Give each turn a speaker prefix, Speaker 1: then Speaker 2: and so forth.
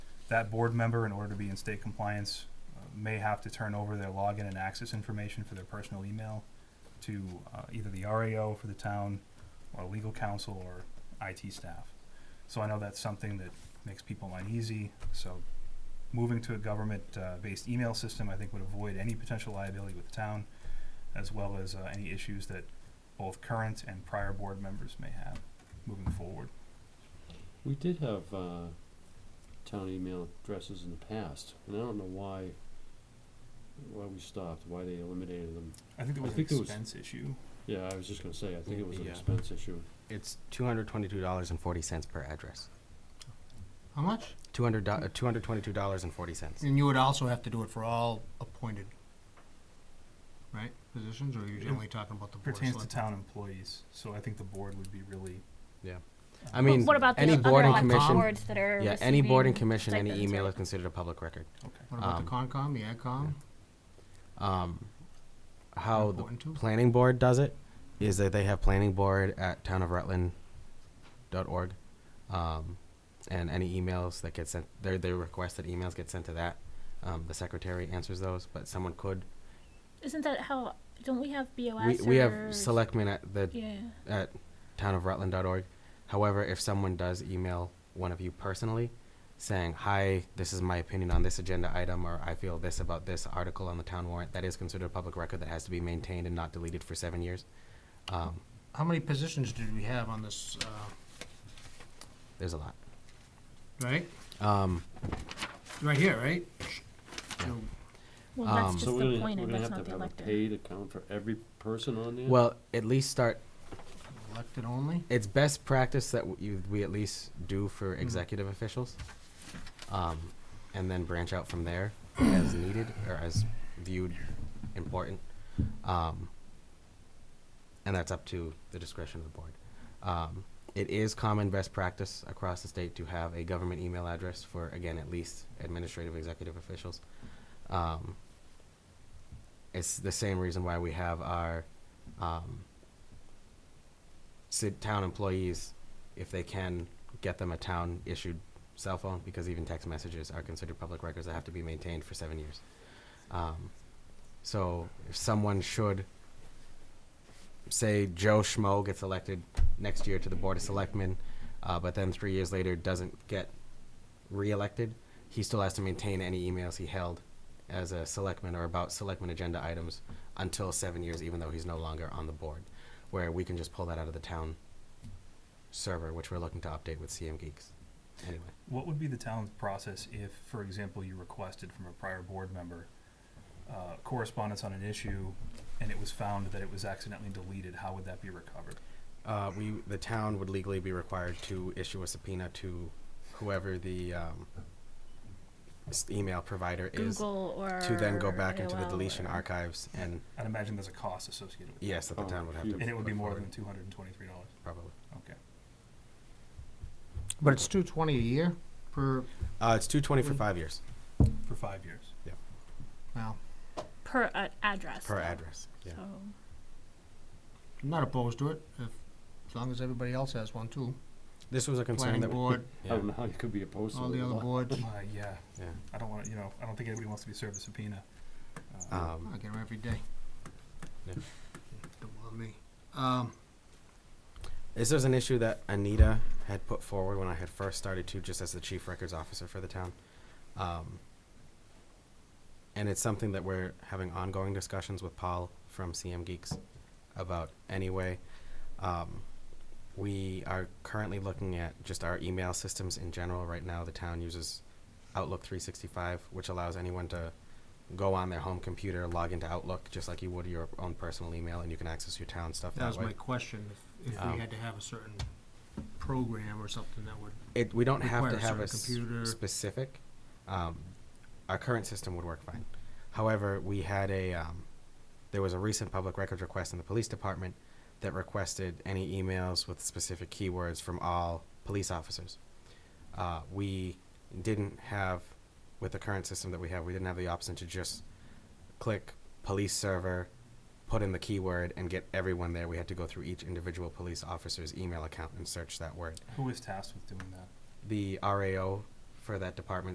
Speaker 1: that board member, in order to be in state compliance, uh, may have to turn over their login and access information for their personal email to uh, either the RAO for the town, or legal counsel, or IT staff. So I know that's something that makes people uneasy, so moving to a government-based email system, I think would avoid any potential liability with the town, as well as uh, any issues that both current and prior board members may have moving forward.
Speaker 2: We did have uh, town email addresses in the past, and I don't know why why we stopped, why they eliminated them.
Speaker 1: I think there
Speaker 2: I
Speaker 1: was an
Speaker 2: think there was-
Speaker 1: expense issue.
Speaker 2: Yeah, I was just gonna say, I think it was an
Speaker 1: Yeah.
Speaker 2: expense issue.
Speaker 3: It's two hundred twenty-two dollars and forty cents per address.
Speaker 4: How much?
Speaker 3: Two hundred uh, two hundred twenty-two dollars and forty cents.
Speaker 4: And you would also have to do it for all appointed, right, positions, or are you
Speaker 1: It
Speaker 4: generally talking about the board of
Speaker 1: Pertains to
Speaker 4: select-
Speaker 1: town employees, so I think the board would be really.
Speaker 3: Yeah.
Speaker 1: uh,
Speaker 3: I mean,
Speaker 5: what about
Speaker 3: any
Speaker 5: the
Speaker 3: board and
Speaker 5: other
Speaker 3: commission-
Speaker 5: boards that are
Speaker 3: Yeah, any board and
Speaker 5: receiving
Speaker 3: commission, any
Speaker 5: stipends,
Speaker 3: email
Speaker 5: right?
Speaker 3: is considered a public record.
Speaker 1: Okay.
Speaker 4: What about the Concom, the AgCom?
Speaker 3: Um, how the
Speaker 4: Important too.
Speaker 3: planning board does it is that they have planning board at townofrutland.org. Um, and any emails that get sent, their, their requested emails get sent to that. Um, the secretary answers those, but someone could.
Speaker 5: Isn't that how? Don't we have
Speaker 3: We,
Speaker 5: BOS?
Speaker 3: we
Speaker 5: or-
Speaker 3: have selectmen at the
Speaker 5: Yeah.
Speaker 3: at townofrutland.org. However, if someone does email one of you personally saying, Hi, this is my opinion on this agenda item, or I feel this about this article on the town warrant, that is considered a public record that has to be maintained and not deleted for seven years. Um,
Speaker 4: How many positions did we have on this, uh,
Speaker 3: there's a lot.
Speaker 4: right?
Speaker 3: Um,
Speaker 4: Right here, right? So,
Speaker 5: Well, that's
Speaker 3: Um,
Speaker 5: just
Speaker 2: So we're
Speaker 5: the
Speaker 2: gonna,
Speaker 5: point,
Speaker 2: we're
Speaker 5: and
Speaker 2: gonna
Speaker 5: that's
Speaker 2: have
Speaker 5: not
Speaker 2: to
Speaker 5: the
Speaker 2: have a
Speaker 5: elected.
Speaker 2: paid account for every person on there?
Speaker 3: well, at least start.
Speaker 4: Elected only?
Speaker 3: It's best practice that w- you, we at least do for executive officials, um, and then branch out from there as needed or as viewed important. Um, and that's up to the discretion of the board. Um, it is common best practice across the state to have a government email address for, again, at least administrative executive officials. Um, it's the same reason why we have our um, sit town employees, if they can, get them a town issued cell phone because even text messages are considered public records that have to be maintained for seven years. Um, so if someone should say Joe Schmo gets elected next year to the Board of Selectmen, uh, but then three years later doesn't get reelected, he still has to maintain any emails he held as a selectman or about selectman agenda items until seven years, even though he's no longer on the board, where we can just pull that out of the town server, which we're looking to update with CM Geeks. Anyway,
Speaker 1: What would be the town's process if, for example, you requested from a prior board member uh, correspondence on an issue and it was found that it was accidentally deleted? How would that be recovered?
Speaker 3: uh, we the town would legally be required to issue a subpoena to whoever the um, s- email provider is
Speaker 5: Google or
Speaker 3: to then go back into the
Speaker 5: AOL
Speaker 3: deletion
Speaker 5: or-
Speaker 3: archives and
Speaker 1: I'd imagine there's a cost associated with it.
Speaker 3: yes, that the
Speaker 2: Oh,
Speaker 3: town would have to.
Speaker 2: huge.
Speaker 1: And it would be
Speaker 3: put
Speaker 1: more
Speaker 3: forward,
Speaker 1: than two hundred and twenty-three dollars.
Speaker 3: probably.
Speaker 1: Okay.
Speaker 4: But it's two twenty a year per,
Speaker 3: Uh, it's two twenty for
Speaker 4: Mm.
Speaker 3: five years
Speaker 1: For five years.
Speaker 4: well,
Speaker 5: per uh, address.
Speaker 3: per
Speaker 5: though.
Speaker 3: address. Yeah.
Speaker 5: So
Speaker 4: I'm not opposed to it, if, as long as everybody else has one too.
Speaker 3: This was a concern
Speaker 4: Planning
Speaker 3: that we-
Speaker 4: board,
Speaker 2: I
Speaker 1: Oh,
Speaker 3: yeah,
Speaker 2: don't know how you could be opposed to it.
Speaker 4: all the other boards.
Speaker 1: Uh, yeah,
Speaker 3: yeah.
Speaker 1: I don't wanna, you know, I don't think anybody wants to be served a subpoena. Uh,
Speaker 3: Um,
Speaker 4: I get 'em every day.
Speaker 3: Yeah.
Speaker 4: Don't bother me. Um,
Speaker 3: This was an issue that Anita had put forward when I had first started to, just as the chief records officer for the town. Um, and it's something that we're having ongoing discussions with Paul from CM Geeks about anyway. Um, we are currently looking at just our email systems in general. Right now, the town uses Outlook 365, which allows anyone to go on their home computer, log into Outlook, just like you would your own personal email, and you can access your town stuff that,
Speaker 4: that was
Speaker 3: way.
Speaker 4: my question, if- if
Speaker 3: Um,
Speaker 4: we had to have a certain program or something that would,
Speaker 3: it, we don't have to
Speaker 4: Require a
Speaker 3: have a
Speaker 4: certain
Speaker 3: s-
Speaker 4: computer.
Speaker 3: specific. Um, our current system would work fine. However, we had a um, there was a recent public records request in the police department that requested any emails with specific keywords from all police officers. Uh, we didn't have with the current system that we have. We didn't have the option to just click police server, put in the keyword, and get everyone there. We had to go through each individual police officer's email account and search that word
Speaker 1: Who is tasked with doing that?
Speaker 3: the RAO for that department